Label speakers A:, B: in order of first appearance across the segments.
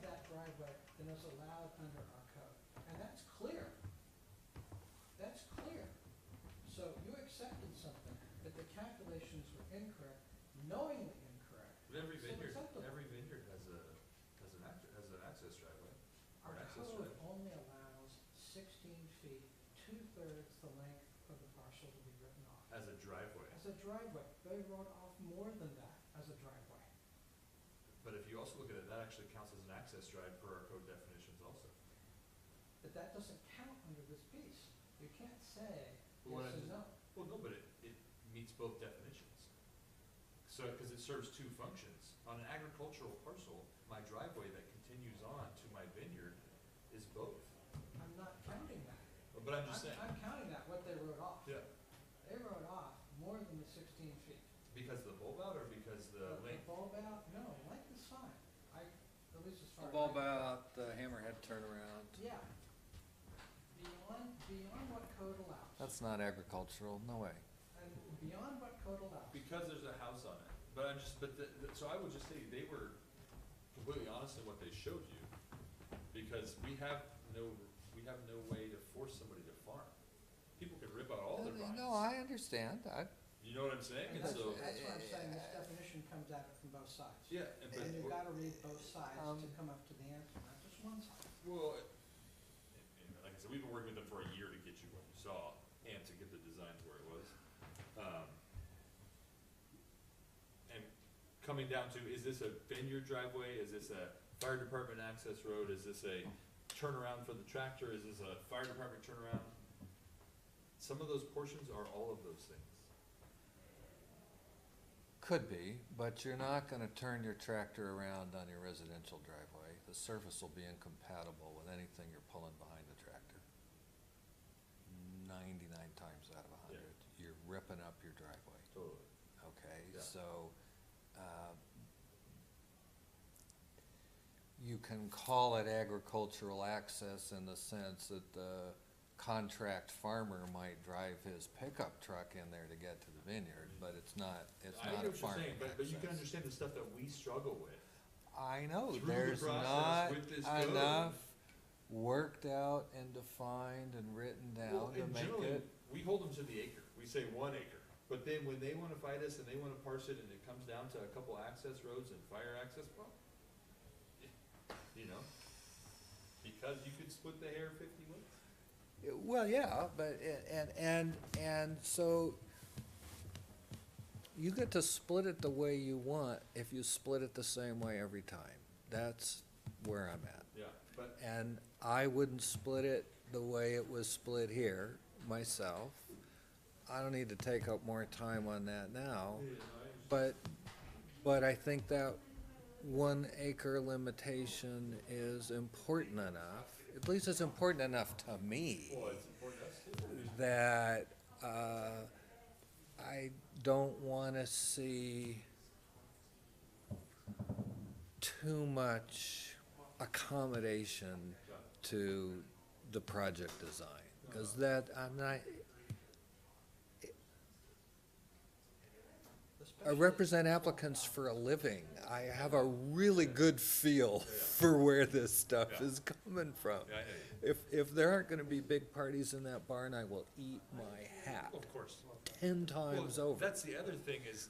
A: driveway than is allowed under our code. And that's clear. That's clear. So you accepted something, that the calculations were incorrect, knowingly incorrect.
B: But every
A: So
B: vineyard,
A: acceptable.
B: every vineyard has a, has an act, has an access driveway.
A: Our
B: Or access
A: code
B: road.
A: only allows sixteen feet, two-thirds the length of the parcel to be written off.
B: As a driveway.
A: As a driveway, they wrote off more than that as a driveway.
B: But if you also look at it, that actually counts as an access drive per our code definitions also.
A: But that doesn't count under this piece. You can't say
B: Well, what I
A: yes and
B: just-
A: no.
B: Well, no, but it, it meets both definitions. So, because it serves two functions. On an agricultural parcel, my driveway that continues on to my vineyard is both.
A: I'm not counting that.
B: But I'm just saying,
A: I'm counting that, what they wrote off.
B: yeah,
A: They wrote off more than the sixteen feet.
B: because of the bulb out or because the length?
A: Bulb out, no, length is fine. I, at least as far as. I-
C: Bulb out, uh, the hammerhead turnaround.
A: Yeah. Beyond, beyond what code allows.
C: That's not agricultural, no way.
A: And beyond what code allows.
B: Because there's a house on it, but I'm just, but the, the- so I would just say they were completely honest in what they showed you, because we have no, we have no way to force somebody to farm. People can rip out all their vines.
C: Uh, No, I understand, I,
B: You know what I'm saying?
A: And
B: And
A: that's,
B: so,
A: that's why I'm saying this definition comes at it from both sides.
B: yeah, and but,
A: And you've
B: we're-
A: gotta read both sides to
C: Um,
A: come up to the answer, not just one side.
B: well, it- and- and like I said, we've been working with them for a year to get you what you saw, and to get the design to where it was. Um, And coming down to, is this a vineyard driveway, is this a fire department access road, is this a turnaround for the tractor, is this a fire department turnaround? Some of those portions are all of those things.
C: could be, but you're not gonna turn your tractor around on your residential driveway. The surface will be incompatible with anything you're pulling behind the tractor. Ninety-nine times out of a
B: Yeah.
C: hundred, you're ripping up your driveway.
B: Totally.
C: Okay,
B: Yeah.
C: so, uh, you can call it agricultural access in the sense that the contract farmer might drive his pickup truck in there to get to the vineyard, but it's not, it's
B: I
C: not
B: hear
C: a
B: what you're
C: farming
B: saying,
C: access.
B: but, but you can understand the stuff that we struggle with.
C: I know,
B: through the
C: there's
B: process
C: not
B: with this code.
C: enough worked out and defined and written
B: Well,
C: down to
B: and
C: make
B: generally,
C: it,
B: We hold them to the acre, we say one acre, but then when they wanna fight us and they wanna parse it and it comes down to a couple access roads and fire access, well, you know, because you could split the hair fifty ways.
C: well, yeah, but, a- and, and, and so you get to split it the way you want if you split it the same way every time. That's where I'm at.
B: Yeah, but,
C: And I wouldn't split it the way it was split here myself. I don't need to take up more time on that now. But, but I think that one acre limitation is important enough, at least it's important enough to me,
B: well, it's important to us too.
C: that, uh, I don't wanna see too much accommodation to the project design, cause that, I'm not, I
A: Especially-
C: represent applicants for a living. I have a really good feel for where this stuff
B: Yeah.
C: is coming from.
B: Yeah, I know.
C: If, if there aren't gonna be big parties in that barn, I will eat my hat
B: of course.
C: ten times
B: Well,
C: over.
B: That's the other thing is,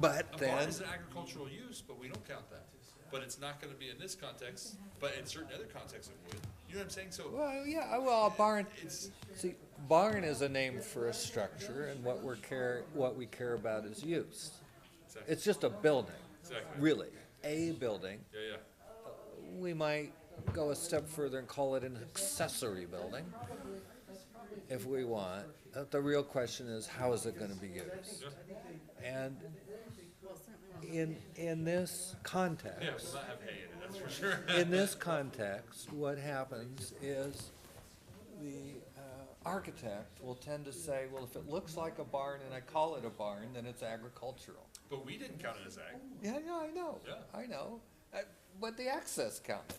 C: But
B: a barn
C: then,
B: is an agricultural use, but we don't count that. But it's not gonna be in this context, but in certain other contexts it would. You know what I'm saying? So
C: well, yeah, uh, well, a barn,
B: it's,
C: see, barn is a name for a structure and what we're care, what we care about is use.
B: exactly,
C: It's just a building,
B: exactly.
C: really, a building.
B: Yeah, yeah.
C: we might go a step further and call it an accessory building, if we want. Uh, The real question is, how is it gonna be used? And in, in this
B: Yeah,
C: context,
B: we'll not have hay in it, that's for sure.
C: in this context, what happens is the uh, architect will tend to say, well, if it looks like a barn and I call it a barn, then it's agricultural.
B: But we didn't count it as ag.
C: Yeah, yeah, I know,
B: Yeah.
C: I know, Uh, but the access counted.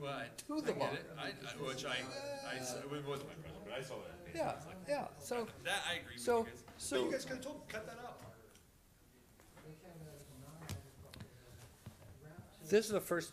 B: Well, I,
C: To
B: I
C: the
B: get it. I, I, which I, I, s- it wasn't my question, but I saw that.
C: Yeah, yeah, so,
B: That I agree with you
C: So-
B: guys.
C: so-
B: You guys could have told, cut that out.
A: They count that as a non-agricultural building. Route two-
C: this is the first